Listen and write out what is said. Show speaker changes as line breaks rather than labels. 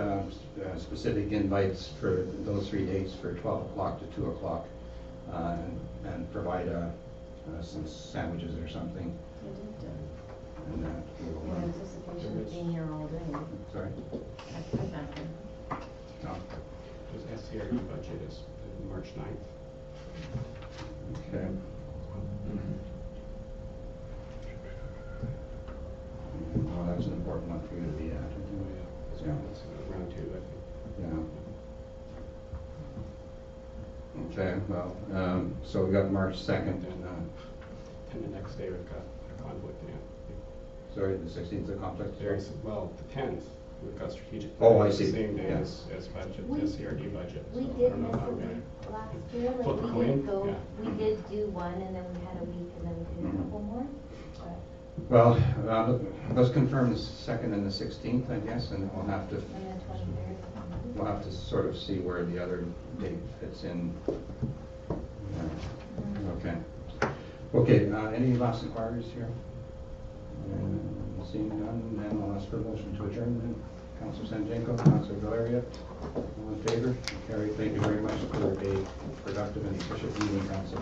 uh, specific invites for those three dates for 12 o'clock to 2 o'clock uh, and provide uh, uh, some sandwiches or something.
I
And that
did,
will,
uh, in
uh,
anticipation of being here all day.
sorry?
I said nothing.
No?
Because SCRE budget is March 9th.
Okay. Well, Oh, that's an important one for you to be at.
uh, It's
Yeah.
around, it's around two, I
Yeah. Okay, well, um, so we got March 2nd and, uh,
think. And the next day we've got a conflict, yeah.
sorry, the 16th is a conflict?
There's, well, the 10th, we've got strategic.
Oh,
planning
I
the
see.
Same day
Yeah.
as, as budget,
We-
SCRD budget.
We
so I
did
don't know
miss
how
a
I'm gonna-
week last year,
Well,
like, we
Colleen,
did go,
yeah.
we did do one, and then we had a week, and then we did a
Mhm.
couple more, but.
Well, uh, let's confirm the 2nd and the 16th, I guess, and we'll have to,
And the twenty-third.
we'll have to sort of see where the other date fits in. Yeah, Okay. Okay, uh, any last inquiries here? And Seeing none, then I'll ask for a motion to adjourn then. Counselor Sanjanko, Counselor Valeria, all in favor? Carrie, thank you very much for a productive and efficient meeting, Council.